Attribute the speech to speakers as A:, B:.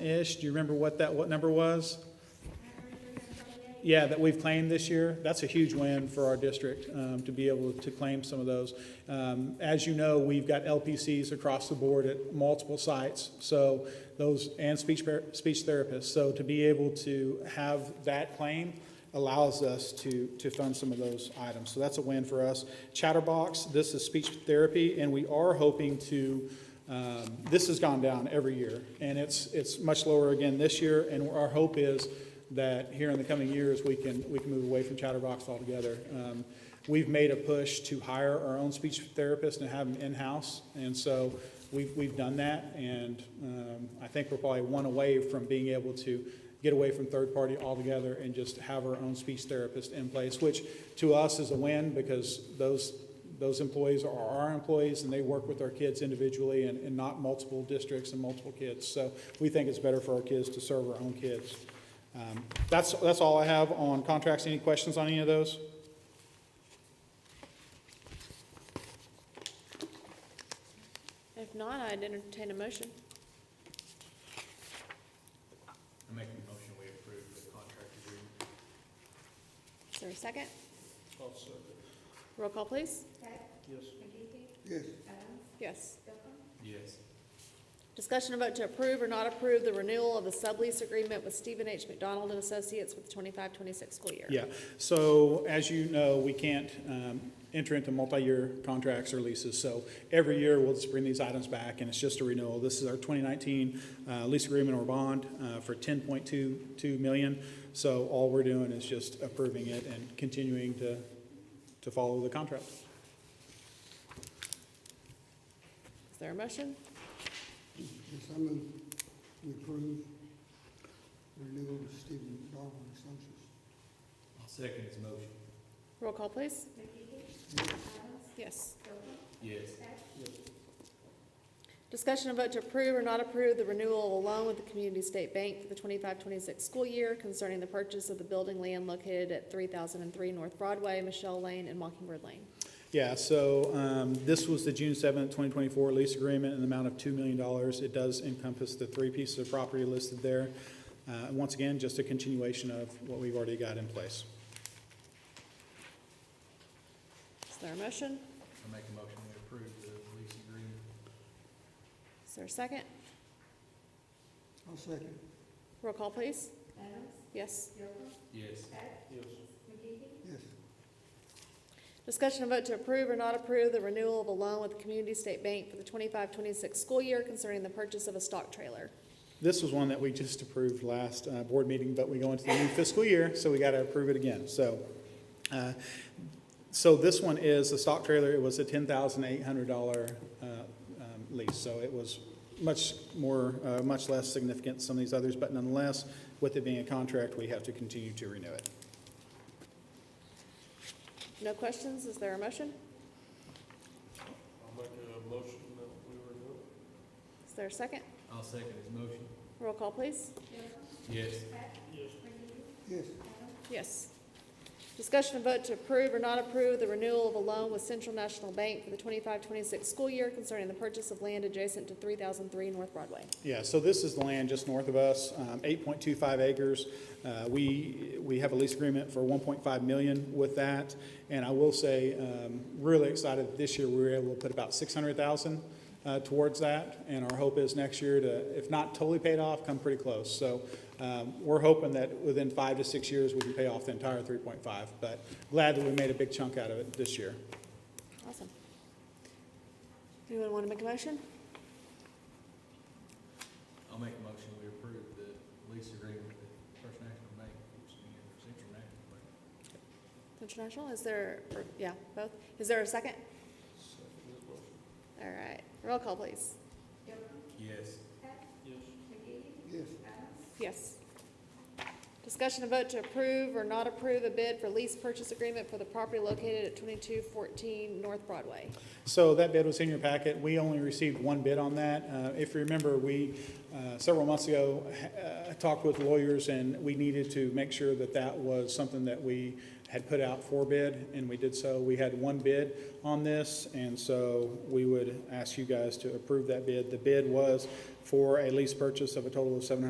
A: ish. Do you remember what that, what number was? Yeah, that we've claimed this year. That's a huge win for our district um, to be able to claim some of those. Um, As you know, we've got LPCs across the board at multiple sites, so those, and speech, par- speech therapists. So to be able to have that claim allows us to, to fund some of those items. So that's a win for us. Chatterbox, this is speech therapy, and we are hoping to um, This has gone down every year, and it's, it's much lower again this year, and our hope is that here in the coming years, we can, we can move away from chatterbox altogether. Um, We've made a push to hire our own speech therapists and have them in-house, and so we've, we've done that, and um, I think we're probably one away from being able to get away from third party altogether and just have our own speech therapist in place, which to us is a win, because those, those employees are our employees, and they work with our kids individually and, and not multiple districts and multiple kids. So we think it's better for our kids to serve our own kids. Um, That's, that's all I have on contracts. Any questions on any of those?
B: If not, I'd entertain a motion.
C: I make a motion we approve the contract agreement.
B: Is there a 2nd Roll call, please. Yes.
C: Yes.
B: Discussion and vote to approve or not approve the renewal of the sublease agreement with Stephen H. McDonald and Associates with the 25-26 school year.
A: Yeah, so as you know, we can't um, enter into multi-year contracts or leases, so every year we'll just bring these items back, and it's just a renewal. This is our 2019 uh, lease agreement or bond uh, for 10.22 million, so all we're doing is just approving it and continuing to, to follow the contract.
B: Is there a motion?
D: Yes, I move we approve renewal of Stephen McDonald and Associates.
C: I'll second his motion.
B: Roll call, please. Yes.
C: Yes.
B: Discussion and vote to approve or not approve the renewal of a loan with the Community State Bank for the 25-26 school year concerning the purchase of the building land located at three thousand and three North Broadway, Michelle Lane, and Mockingbird Lane.
A: Yeah, so um, this was the June seventh, twenty twenty-four lease agreement in the amount of two million dollars. It does encompass the three pieces of property listed there. Uh, Once again, just a continuation of what we've already got in place.
B: Is there a motion?
C: I make a motion we approve the lease agreement.
B: Is there a second?
D: I'll second.
B: Roll call, please. Yes.
C: Yes.
D: Yes,
B: Discussion and vote to approve or not approve the renewal of a loan with the Community State Bank for the 25-26 school year concerning the purchase of a stock trailer.
A: This was one that we just approved last uh, board meeting, but we go into the new fiscal year, so we got to approve it again. So, uh, so this one is the stock trailer, it was a ten thousand eight hundred dollar uh, um, lease. So it was much more, uh, much less significant than some of these others, but nonetheless, with it being a contract, we have to continue to renew it.
B: No questions? Is there a motion?
E: I'll make a motion that we renew.
B: Is there a second?
C: I'll second his motion.
B: Roll call, please.
C: Yes.
D: yes,
B: Yes. Discussion and vote to approve or not approve the renewal of a loan with Central National Bank for the 25-26 school year concerning the purchase of land adjacent to three thousand three North Broadway.
A: Yeah, so this is the land just north of us, um, 8.25 acres. Uh, We, we have a lease agreement for 1.5 million with that. And I will say, um, really excited this year, we were able to put about 600,000 uh, towards that. And our hope is next year to, if not totally paid off, come pretty close. So um, we're hoping that within five to six years, we can pay off the entire 3.5. But glad that we made a big chunk out of it this year.
B: Awesome. Anyone want to make a motion?
C: I'll make a motion we approve the lease agreement with First National Bank, which is the Central National Bank.
B: Central National, is there, or- yeah, both? Is there a second?
E: Second his motion.
B: All right, roll call, please.
C: Yes.
E: Yes.
D: yes,
B: Yes. Discussion and vote to approve or not approve a bid for lease purchase agreement for the property located at twenty-two fourteen North Broadway.
A: So that bid was in your packet. We only received one bid on that. Uh, If you remember, we, uh, several months ago, uh, talked with lawyers, and we needed to make sure that that was something that we had put out for bid, and we did so. We had one bid on this, and so we would ask you guys to approve that bid. The bid was for a lease purchase of a total of seven hundred.